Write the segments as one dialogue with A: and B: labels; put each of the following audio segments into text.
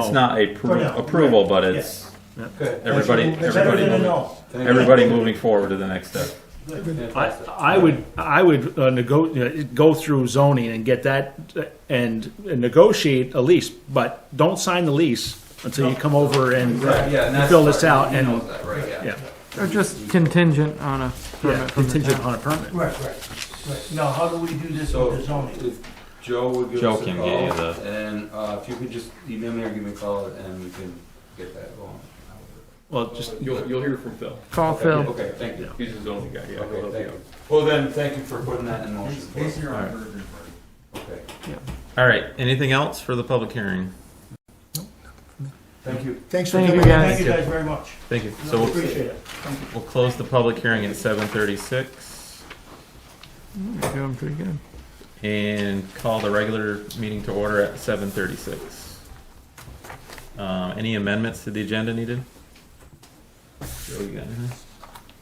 A: It's not a
B: For now,
A: pro- approval,
B: Oh, right,
A: but
B: yes.
A: it's
B: Good.
A: everybody-
B: That's better
A: everybody
B: than a
A: moving.
B: no.
A: everybody moving forward to the next step.
C: I, I would, I would uh, nego, you know, go through zoning and get that, uh, and and negotiate a lease, but don't sign the lease until you come over and
D: Right, yeah, and that's.
C: fill this
D: right,
C: out
D: he
C: and,
D: knows that, right, yeah.
C: yeah,
E: Or just contingent on a
C: yeah,
E: permit from the
C: contingent
E: town.
C: on a permit.
B: Right, right, right. Now, how do we do this
D: So
B: with the zoning?
D: if Joe would give
A: Joe
D: us a
A: can
D: call,
A: get you the-
D: and uh, if you could just email me or give me a call, and we can get that going.
C: Well, just,
F: You'll, you'll hear from Phil.
E: Call Phil.
D: Okay, thank you.
F: He's his only guy, yeah. he'll
D: Okay,
F: help
D: thank
F: you
D: you.
F: out.
D: Well, then, thank you for putting that in motion. for us.
A: All right.
D: Okay,
A: All right. Anything else for the public hearing?
D: thank you.
E: Thanks for coming.
B: Thank you
E: guys.
B: guys very much.
A: Thank you. So
B: No,
A: we'll,
B: Appreciate it.
A: we'll close the public hearing at seven thirty-six
E: You're doing pretty good.
A: and call the regular meeting to order at seven thirty-six. Um, any amendments to the agenda needed? Joe, you got anything?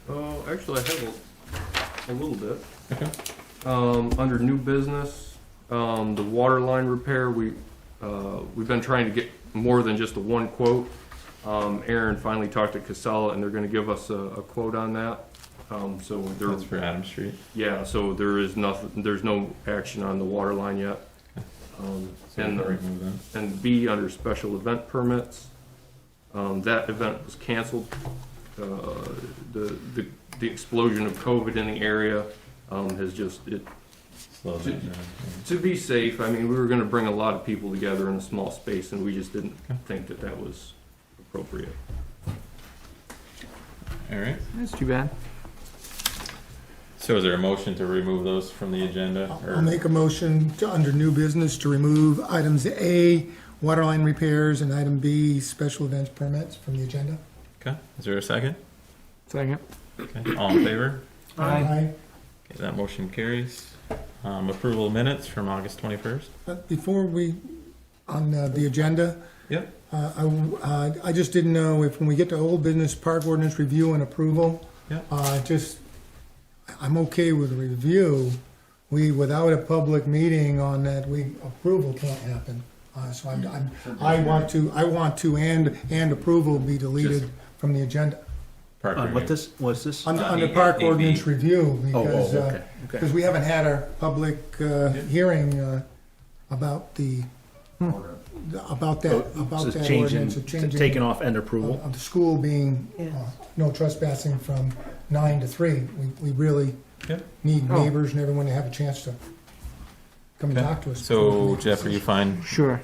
F: Oh, actually, I have a, a little bit. Um, under new business, um, the water line repair, we, uh, we've been trying to get more than just the one quote. Um, Aaron finally talked to Casella and they're gonna give us a, a quote on that. Um, so there,
A: That's for Adam Street.
F: yeah, so there is nothing, there's no action on the water line yet. Um,
A: So
F: and
A: we'll
F: the
A: remove that.
F: and B, under special event permits. Um, that event was canceled. Uh, the, the, the explosion of COVID in the area, um, has just, it,
A: Slow that down.
F: to be safe, I mean, we were gonna bring a lot of people together in a small space and we just didn't think that that was appropriate.
A: All right.
E: That's too bad.
A: So is there a motion to remove those from the agenda? or-
G: I'll make a motion to, under new business, to remove items A, waterline repairs, and item B, special events permits from the agenda.
A: Okay, is there a second?
E: Second.
A: Okay, all in favor?
G: Aye.
A: Okay, that motion carries. Um, approval of minutes from August twenty-first.
G: But Uh, Before we, on uh, the agenda.
A: Yep.
G: Uh, I, w- uh, I just didn't know if, when we get to old business park ordinance review and approval.
A: Yep.
G: Uh, just, I'm okay with review. We, without a public meeting on that, we, approval can't happen. Uh, so I'm, I'm, I want to, I want to and, and approval be deleted from the agenda.
A: Park
C: on Uh, what
A: review.
C: this, what's this?
G: Under,
A: Uh,
G: under
A: A-
G: park
A: AB.
G: ordinance review, because,
C: Oh, okay,
G: uh,
C: okay.
G: because we haven't had our public, uh, hearing, uh, about the, about that,
C: So
G: about
C: it's
G: that
C: changing,
G: ordinance, of
C: t-
G: changing Uh,
C: taking off end
G: of
C: approval.
G: of the school being, uh, no trespassing from nine to three. We, we really
A: Yep.
G: need
E: Oh.
G: neighbors and everyone to have a chance to come and
A: Okay.
G: talk to us.
A: So Jeff, are you fine?
E: Sure.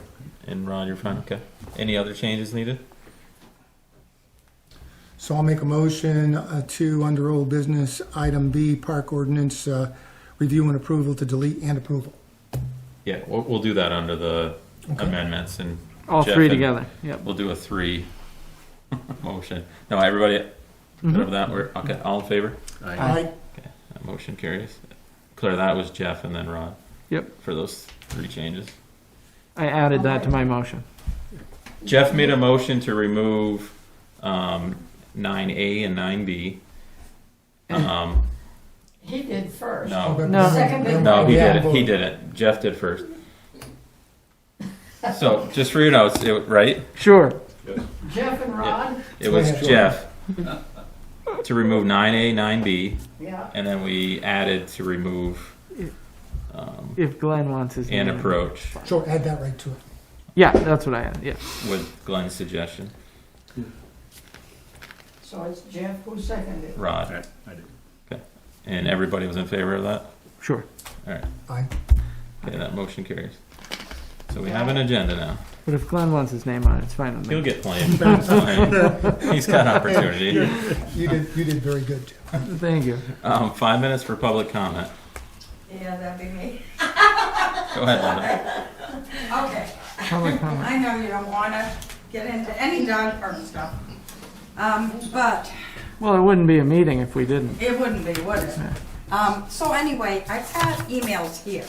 A: And Ron, you're fine? Okay. Any other changes needed?
G: So I'll make a motion uh, to, under old business, item B, park ordinance, uh, review and approval to delete and approval.
A: Yeah, we'll, we'll do that under the
G: Okay.
A: amendments and
E: All
A: Jeff
E: three
A: and-
E: together. Yep.
A: we'll do a three motion. No, everybody, good with that? We're, okay, all in favor?
G: Aye.
A: That motion carries. Clear, that was Jeff and then Ron.
E: Yep.
A: For those three changes.
E: I added that to my motion.
A: Jeff made a motion to remove um, 9A and 9B. Um,
H: He did first.
A: no,
G: but-
E: No.
H: Second big
A: Oh. no, he
G: Yeah.
A: did it. He did it. Jeff did first. So, just for your notes, it, right?
E: Sure.
H: Jeff and Ron,
A: It was
G: Yeah.
A: Jeff to remove 9A, 9B,
H: yeah.
A: and then we added to remove um,
E: If Glenn wants his
A: an
E: name.
A: approach
G: Sure, add that right to it.
E: Yeah, that's what I added. Yeah.
A: with Glenn's suggestion.
H: So it's Jeff who seconded.
A: Rod.
C: Right, I did.
A: Okay. And everybody was in favor of that?
E: Sure.
G: Aye.
A: Okay, that motion carries. So we have an agenda now.
E: But if Glenn wants his name on it, it's fine with me.
A: He'll get plenty. It's fine. He's got opportunity.
G: You did, you did very good, Jeff.
E: Thank you.
A: Um, five minutes for public comment.
H: Yeah, that'd be me.
A: Go ahead, Linda.
I: Okay,
E: Public comment.
I: I know you don't wanna get into any dog park stuff, um, but
E: Well, it wouldn't be a meeting if we didn't.
I: it wouldn't be, would it? Um, so anyway, I've got emails here,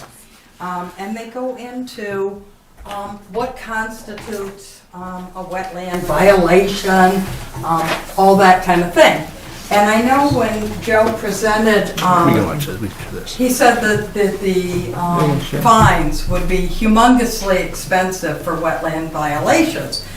I: um, and they go into, um, what constitutes, um, a wetland violation, um, all that kind of thing. And I know when Joe presented,
J: We can
I: um,
J: watch this, we can do this.
I: he said that that the um,
E: Yeah, sure.
I: fines would be humongously expensive for wetland violations.